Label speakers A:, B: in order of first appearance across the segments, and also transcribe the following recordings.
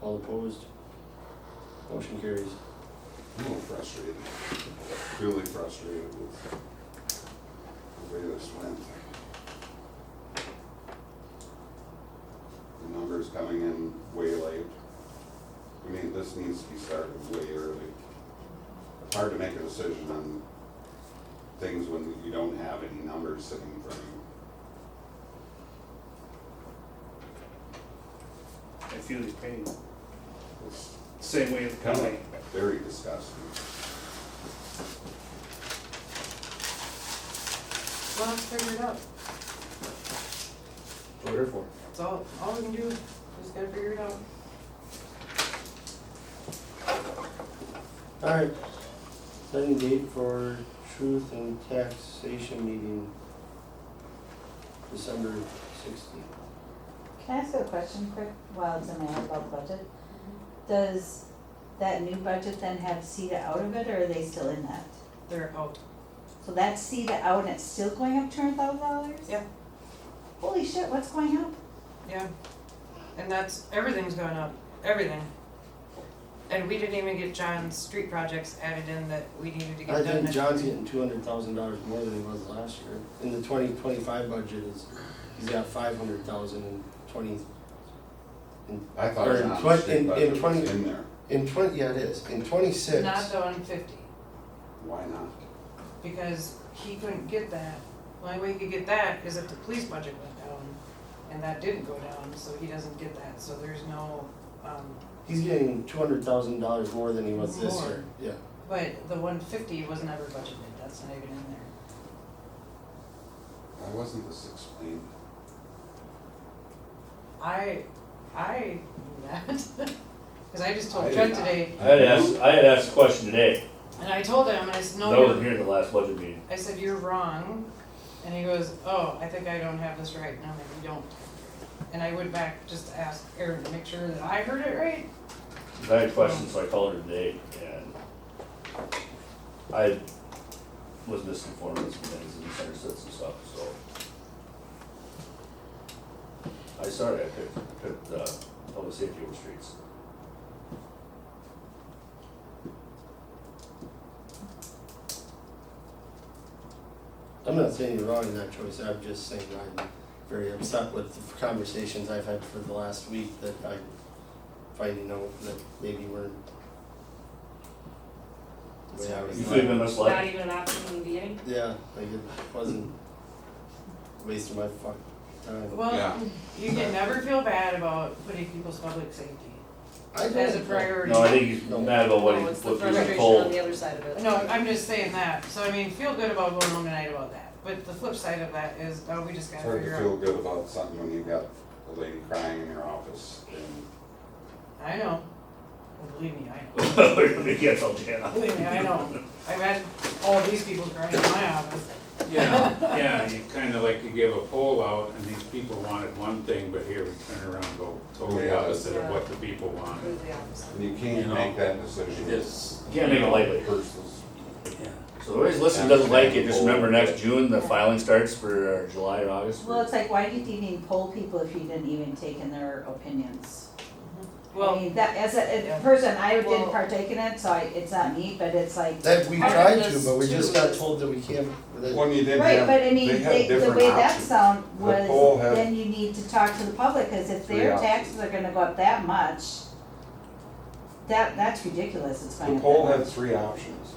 A: All opposed? Motion carries.
B: I'm a little frustrated, really frustrated with the way this went. The numbers coming in way late. I mean, this needs to be started way early. It's hard to make a decision on things when you don't have any numbers sitting in front of you.
C: I feel his pain,
B: It's
C: same way with the
B: kind
C: county.
B: of very disgusting.
D: Well, let's figure it out.
A: What here for?
D: That's all, all we can do, just gotta figure it out.
A: Alright, setting date for truth and taxation meeting. December sixteenth.
E: Can I ask a question quick while it's in my about budget? Does that new budget then have CETA out of it or are they still in that?
D: They're out.
E: So that's CETA out and it's still going up two hundred thousand dollars?
D: Yeah.
E: Holy shit, what's going up?
D: Yeah. And that's, everything's going up, everything. And we didn't even get John's street projects added in that we needed to get
A: I
D: done.
A: think
D: next
A: John's
D: year.
A: getting two hundred thousand dollars more than he was last year. In the twenty twenty-five budget is, he's got five hundred thousand in twenty,
B: I thought
A: Or in
B: John's
A: twen- in-
B: state
A: in
B: budget was
A: 20
B: in there.
A: in twenty, yeah, it is, in twenty-six.
D: Not the one fifty,
B: Why not?
D: because he couldn't get that. The Only way he could get that is if the police budget went down, and that didn't go down, so he doesn't get that, so there's no, um,
A: He's getting two hundred thousand dollars more than he was this
D: More.
A: year, yeah.
D: but the one fifty was never budgeted, that's not even in there.
B: Why wasn't this explained?
D: I, I knew that, because I just
B: I
D: told
B: did
D: Fred
B: not.
D: today,
F: I had asked, I had asked a question today,
D: and I told him, and I said,
G: Oh,
F: that
D: no,
F: wasn't
D: you're-"
F: here at the last budget meeting.
D: I said, you're wrong, and he goes, oh, I think I don't have this right, no, maybe you don't. And I went back just to ask Erin to make sure that I heard it right,
F: I had questions, so I called her today, and I was misinformed on some things and misunderstood some stuff, so. I started, I picked, I picked, uh, public safety over streets.
A: I'm not saying you're wrong in that choice, I'm just saying I'm very upset with the conversations I've had for the last week that I'm finding out that maybe we're. the way I was
F: You
A: led.
F: feel
G: Not
F: misled?
G: even an option in the beginning?
A: Yeah, like it wasn't wasting my fuck time.
D: well,
B: Yeah.
D: you can never feel bad about putting people's public safety
A: I
D: as a
A: don't-
D: priority.
F: No, I think he's mad about what he,
G: No, Oh, it's the
F: what he was
G: frustration on
F: told.
G: the other side of it.
D: No, I'm just saying that, so I mean, feel good about going home tonight about that, but the flip side of that is, oh, we just
B: It's
D: gotta
B: hard
D: figure
B: to
D: out.
B: feel good about something when you've got a lady crying in your office and
D: I know. Well, Believe me, I know.
F: We're gonna cancel Jana.
D: Believe me, I know. I've had all these people crying in my office.
H: Yeah, yeah, you kinda like you give a poll out and these people wanted one thing, but here we turn around and go totally opposite of what the people wanted.
G: Completely opposite.
B: you can't
H: You know,
B: make that decision.
H: It's,
F: Can't make it lightly.
B: Versus,
H: yeah.
F: So whoever's listening doesn't like it, just remember next June, the filing starts for uh, July or August.
E: Well, it's like, why did you even poll people if you didn't even take in their opinions? I
D: Well,
E: mean, that, as a,
D: Yeah.
E: a person, I
D: Well-
E: didn't partake in it, so I, it's not me, but it's like,
A: That we
G: Part of
A: tried to,
G: this
A: but we just
G: too
A: got
G: is-
A: told that we can't, that
B: when you didn't
E: right,
B: have,
E: but I mean,
B: they
E: they,
B: had
E: the
B: different
E: way that
B: options.
E: sound
B: The poll
E: was,
B: had-
E: then you need to talk to the public, cause if
B: Three
E: their
B: options.
E: taxes are gonna go up that much, that, that's ridiculous, it's going
B: The
E: up
B: poll
E: that
B: had
E: much.
B: three options.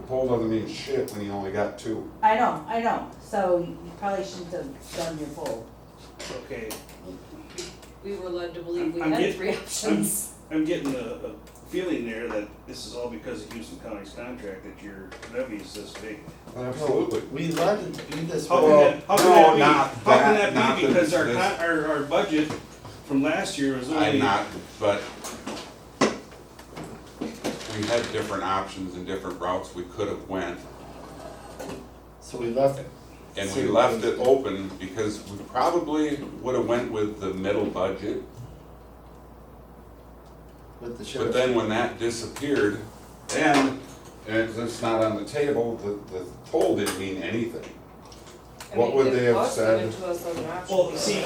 B: The poll doesn't mean shit when you only got two.
E: I know, I know, so you probably shouldn't have done your poll.
C: Okay,
G: We were led to believe we
I: I'm
G: had
I: get-
G: three options.
I: I'm getting a, a feeling there that this is all because of Houston County's contract that your levy is this big.
B: Absolutely.
A: we led to do this.
I: How
A: but-
I: can that, how can
B: Well,
I: that be,
B: no,
I: how
B: not that, not
I: can that be
B: that
I: because our
B: this-
I: con, our, our budget from last year was only.
B: I'm not, but we had different options and different routes we could have went.
A: So we left it.
B: And we left it open because we probably would have went with the middle budget.
A: with the sheriff.
B: But then when that disappeared, then, and it's- it's not on the table, the, the poll didn't mean anything.
G: I
B: What
G: mean,
B: would
G: if
B: they have
G: us
B: said?
G: given to us as an option,
I: Well,
G: we
I: see,
G: would've